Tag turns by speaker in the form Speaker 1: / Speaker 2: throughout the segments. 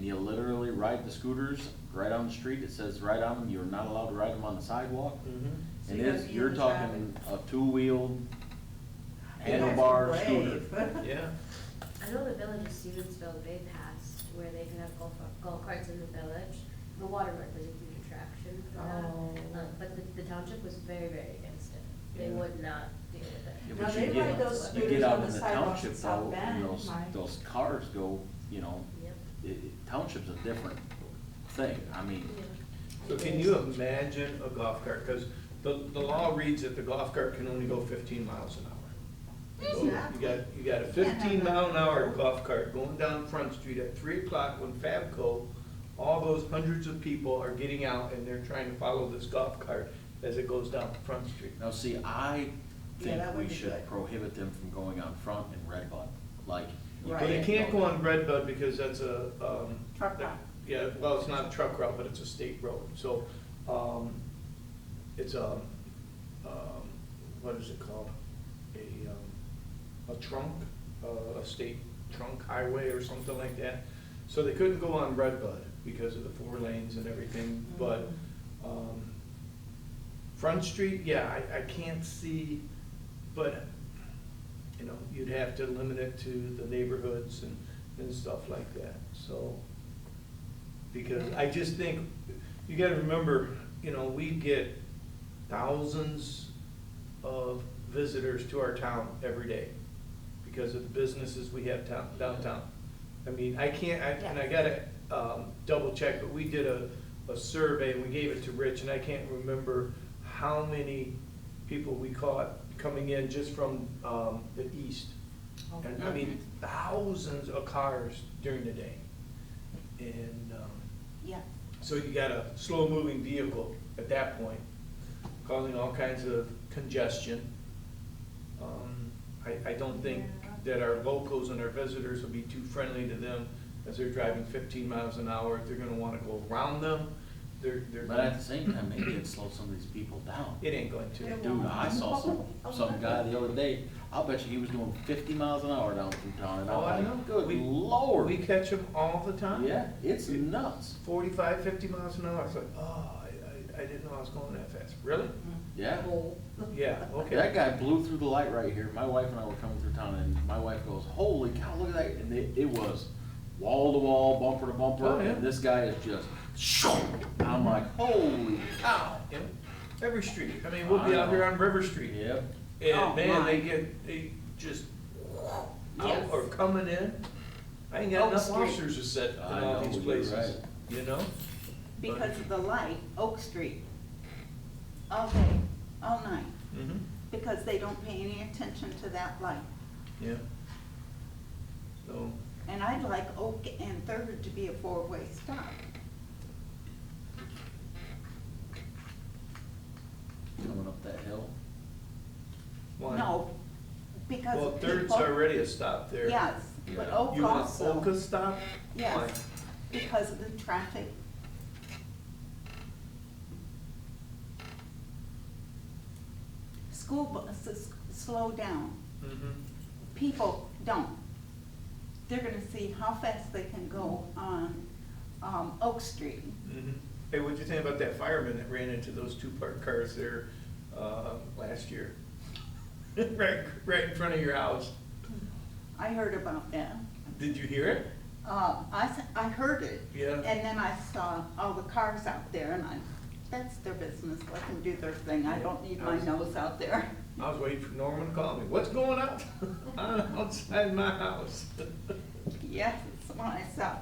Speaker 1: you literally ride the scooters right on the street, it says right on them, you're not allowed to ride them on the sidewalk.
Speaker 2: Mm-hmm.
Speaker 3: So
Speaker 1: And
Speaker 3: you gotta
Speaker 1: it's,
Speaker 3: be in
Speaker 1: you're
Speaker 3: the
Speaker 1: talking a two-wheel
Speaker 3: You guys are
Speaker 1: handlebar scooter.
Speaker 3: brave.
Speaker 2: Yeah.
Speaker 4: I know the village of Stevensville, they passed where they can have golf, golf carts in the village. The waterwork was a huge attraction for that.
Speaker 3: Oh.
Speaker 4: Uh, But the, the township was very, very against it. They
Speaker 3: Yeah.
Speaker 4: would not deal with
Speaker 1: Yeah,
Speaker 4: it.
Speaker 3: Now,
Speaker 1: but you
Speaker 3: they
Speaker 1: get-
Speaker 3: ride those
Speaker 1: you get
Speaker 3: scooters
Speaker 1: out
Speaker 3: on
Speaker 1: in
Speaker 3: the sidewalks
Speaker 1: township
Speaker 3: in South
Speaker 1: though,
Speaker 3: Bend,
Speaker 1: and those-
Speaker 3: Mike.
Speaker 1: Those cars go, you know,
Speaker 4: Yep.
Speaker 1: it- it- township's a different thing, I mean,
Speaker 2: So can you imagine a golf cart? Because the, the law reads that the golf cart can only go fifteen miles an hour. So You got, you got a fifteen mile an hour golf cart going down Front Street at three o'clock when Fabco, all those hundreds of people are getting out and they're trying to follow this golf cart as it goes down Front Street.
Speaker 1: now, see, I
Speaker 3: Yeah,
Speaker 1: think
Speaker 3: that
Speaker 1: we
Speaker 3: would be
Speaker 1: should
Speaker 3: good.
Speaker 1: prohibit them from going on front in Red Bud, like. you
Speaker 3: Right.
Speaker 2: But it can't go on
Speaker 1: there.
Speaker 2: Red Bud because that's a, um.
Speaker 3: Truck route.
Speaker 2: Yeah, well, it's not a truck route, but it's a state road, so, um, it's a, um, what is it called? A, um, a trunk, uh, a state trunk highway or something like that. So they couldn't go on Red Bud because of the four lanes and everything, but,
Speaker 3: Mm-hmm.
Speaker 2: um, Front Street, yeah, I, I can't see, but, you know, you'd have to limit it to the neighborhoods and, and stuff like that, so. Because I just think, you gotta remember, you know, we get thousands of visitors to our town every day because of the businesses we have town, downtown. I mean, I can't, I, and I gotta, um, double check, but we did a, a survey and we gave it to Rich and I can't remember how many people we caught coming in just from, um, the east. And I mean, thousands of cars during the day. And, um,
Speaker 3: Yeah.
Speaker 2: so you got a slow-moving vehicle at that point, causing all kinds of congestion. Um, I, I don't think that our locals and our visitors will be too friendly to them as they're driving fifteen miles an hour. They're gonna wanna go around them. They're, they're,
Speaker 1: But at the same time, maybe it'd slow some of these people down.
Speaker 2: it ain't going
Speaker 3: It
Speaker 2: to.
Speaker 3: won't.
Speaker 1: Dude, I saw some, some guy the other day, I'll bet you he was doing fifty miles an hour down through town, and
Speaker 2: Oh, I
Speaker 1: I'm
Speaker 2: know.
Speaker 1: like, good
Speaker 2: We-
Speaker 1: lord.
Speaker 2: We catch them all the time.
Speaker 1: Yeah, it's nuts,
Speaker 2: 45, 50 miles an hour. It's like, oh, I, I, I didn't know I was going that fast. Really?
Speaker 1: yeah.
Speaker 2: Yeah, Oh, okay.
Speaker 1: That guy blew through the light right here. My wife and I were coming through town, and my wife goes, "Holy cow, look at that!" And it, it was wall to wall, bumper to bumper,
Speaker 2: Oh, yeah.
Speaker 1: and this guy is just. I'm like, "Holy cow!"
Speaker 2: Yeah. Every street. I mean, we'll be out here on River Street.
Speaker 1: Yep.
Speaker 2: And
Speaker 3: Oh,
Speaker 2: man,
Speaker 3: my.
Speaker 2: they get, they just out
Speaker 3: Yes. Oh,
Speaker 2: or coming in. I ain't
Speaker 3: Oak
Speaker 2: got enough
Speaker 3: Street.
Speaker 2: officers to set in
Speaker 1: I
Speaker 2: all
Speaker 1: know,
Speaker 2: these
Speaker 1: you're
Speaker 2: places,
Speaker 1: right.
Speaker 2: you know?
Speaker 3: Because of the light, Oak Street, all day, all night,
Speaker 2: Mm-hmm,
Speaker 3: because they don't pay any attention to that light.
Speaker 2: yeah. So,
Speaker 3: And I'd like Oak and Third to be a four-way stop.
Speaker 1: Coming up that hill.
Speaker 2: why?
Speaker 3: No, because
Speaker 2: Well,
Speaker 3: people.
Speaker 2: Third's already a stop there.
Speaker 3: Yes, but
Speaker 1: Yeah.
Speaker 3: Oak
Speaker 2: You want Oka
Speaker 3: also,
Speaker 2: stop? Why?
Speaker 3: yes, because of the traffic. School buses slow down.
Speaker 2: Mhm.
Speaker 3: people don't. They're gonna see how fast they can go on, um, Oak Street.
Speaker 2: Mhm. Hey, what'd you think about that fireman that ran into those two parked cars there, uh, last year? Right, right in front of your house.
Speaker 3: I heard about that.
Speaker 2: Did you hear it?
Speaker 3: Uh, I, s- I heard it.
Speaker 2: Yeah.
Speaker 3: And then I saw all the cars out there and I, that's their business, let them do their thing, I don't need my nose out there.
Speaker 2: I was waiting for Norman to call me. What's going on? I'm outside my house.
Speaker 3: Yes, it's when I saw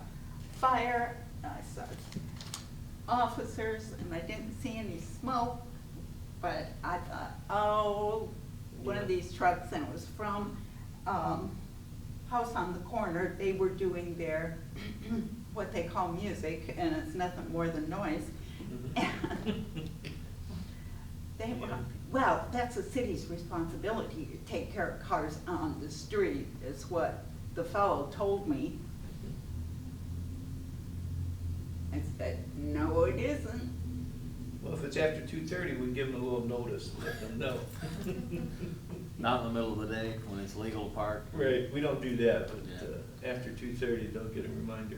Speaker 3: fire, I saw officers and I didn't see any smoke, but I thought, oh, one of these trucks, and it was from, um, House on the Corner, they were doing their, what they call music, and it's nothing more than noise.
Speaker 2: Mm-hmm.
Speaker 3: They were,
Speaker 2: Yeah.
Speaker 3: well, that's the city's responsibility to take care of cars on the street, is what the fellow told me. I said, no, it isn't.
Speaker 2: Well, if it's after two thirty, we give them a little notice, and let them know.
Speaker 1: Not in the middle of the day when it's legal to park.
Speaker 2: Right, we don't do that, but
Speaker 1: Yeah.
Speaker 2: uh, after two thirty, they'll get a reminder.